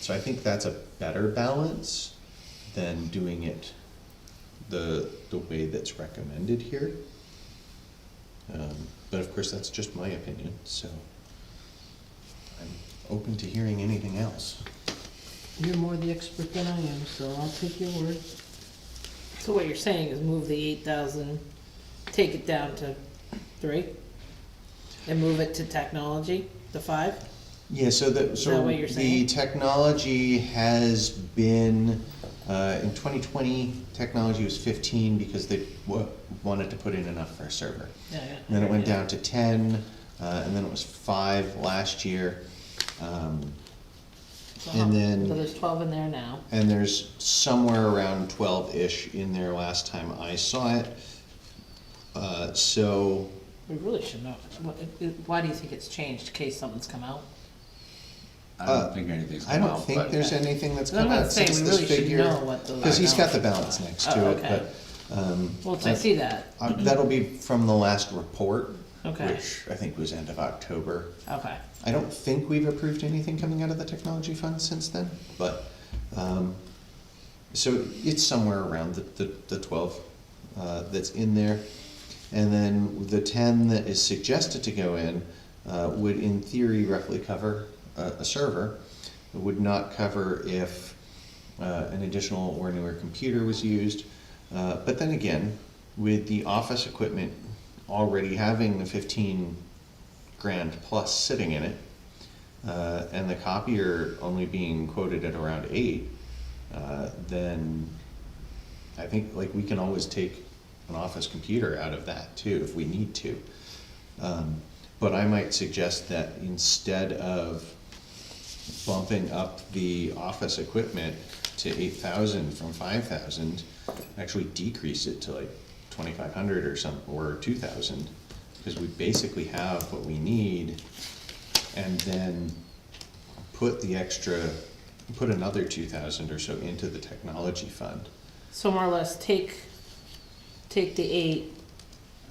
So I think that's a better balance than doing it the, the way that's recommended here. Um, But of course, that's just my opinion, so I'm open to hearing anything else. You're more the expert than I am, so I'll take your word. So what you're saying is move the eight thousand, take it down to three? And move it to technology, the five? Yeah, so that, Is so that what you're the saying? technology has been, uh, in twenty twenty, technology was fifteen because they wa- wanted to put in enough for a server. And then it went down to ten, uh, and then it was five last year. Um, Uh-huh. and then- So there's twelve in there now. and there's somewhere around twelve-ish in there last time I saw it. Uh, so, We really should know. What- it- it- Why do you think it's changed, in case something's come out? I Uh, don't think anything's I come don't out, think but there's anything that's I'm come not out saying since we this really should figure. know what those. Cause he's got the balances balance next are. Oh, to it, okay. but, um, Well, I see that, uh, that'll be from the last report, okay, which I think was end of October. okay. I don't think we've approved anything coming out of the technology fund since then, but, um, so it's somewhere around the, the, the twelve, uh, that's in there. And then the ten that is suggested to go in, uh, would in theory roughly cover a, a server. It would not cover if, uh, an additional or newer computer was used. Uh, but then again, with the office equipment already having the fifteen grand plus sitting in it, uh, and the copier only being quoted at around eight, uh, then I think, like, we can always take an office computer out of that too, if we need to. Um, But I might suggest that instead of bumping up the office equipment to eight thousand from five thousand, actually decrease it to like twenty-five hundred or some, or two thousand, because we basically have what we need, and then put the extra, put another two thousand or so into the technology fund. So more or less, take, take the eight,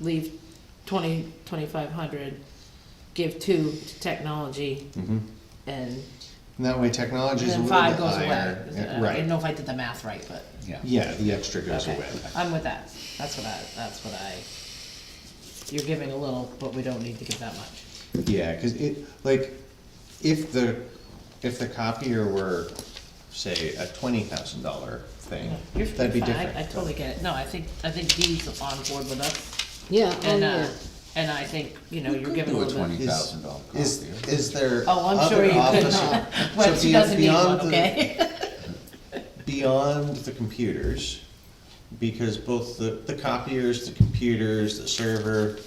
leave twenty, twenty-five hundred, give two to technology, And and that way technology is a then little five bit goes away. higher. Is Yeah, it- I Right, didn't know if I did the math right, but. yeah. yeah, the extra goes okay. away. I'm with that, that's what I, that's what I, you're giving a little, but we don't need to give that much. Yeah, cause it, like, if the, if the copier were, say, a twenty thousand dollar thing, You're- that'd be you're fine. I- different. I totally get it, no, I think, I think Dee's on board with us, Yeah, oh and, yeah. uh, and I think, you know, We you're could giving a do a little bit. twenty Is, thousand dollar is, copier. is there Oh, I'm sure other you could office- not, so but she be- doesn't need beyond one, the- okay? beyond the computers, because both the, the copiers, the computers, the server,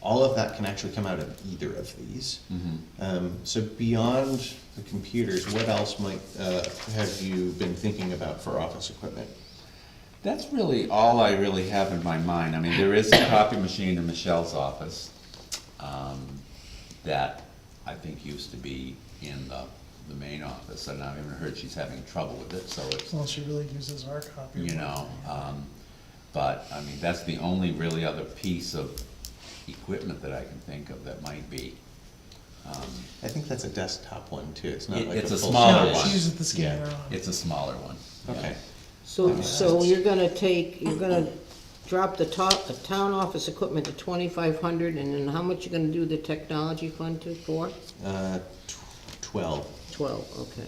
all of that can actually come out of either of these. Mm-hmm. Um, so beyond the computers, what else might, uh, have you been thinking about for office equipment? That's really all I really have in my mind. I mean, there is a copy machine in Michelle's office, um, that I think used to be in the, the main office, and I've even heard she's having trouble with it, so it's, Well, she really uses our copy. you know, um, but, I mean, that's the only really other piece of equipment that I can think of that might be. I think that's a desktop one too, it's not It- like a it's a full. smaller size. No, one. she uses the scanner Yeah. on. It's a smaller one. yeah. Okay, So, so you're gonna take, you're gonna drop the top, the town office equipment to twenty-five hundred, and then how much you gonna do the technology fund to, for? uh, tw- twelve, Twelve, okay.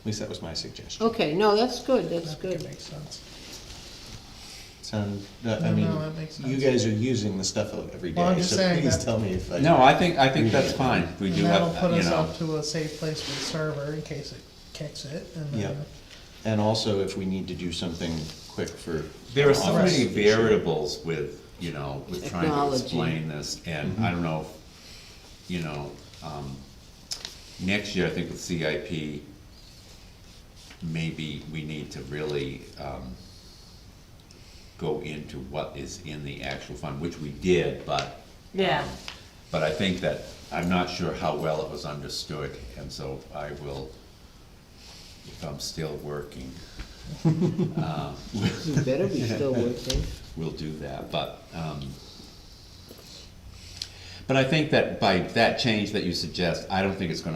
at least that was my suggestion. Oh. Okay, no, that's good, I that's think it good. makes sense. Sound, uh, I No, mean, no, that makes you sense. guys are using the stuff every Well, I'm day, just so saying please that- tell me if I. No, I think, I think that's fine, we And do that'll have, put you us know, up to a safe place for the server in case it kicks it and Yeah, then. and also if we need to do something quick for. there are so office many issue. variables with, you know, with trying to Technology. explain this, and I don't know, you know, um, next year, I think with CIP, maybe we need to really, um, go into what is in the actual fund, which we did, but Yeah, But I think that, I'm not sure how well it was understood, and so I will, if I'm still working, You better be still working. we'll do that, but, um, but I think that by that change that you suggest, I don't think it's gonna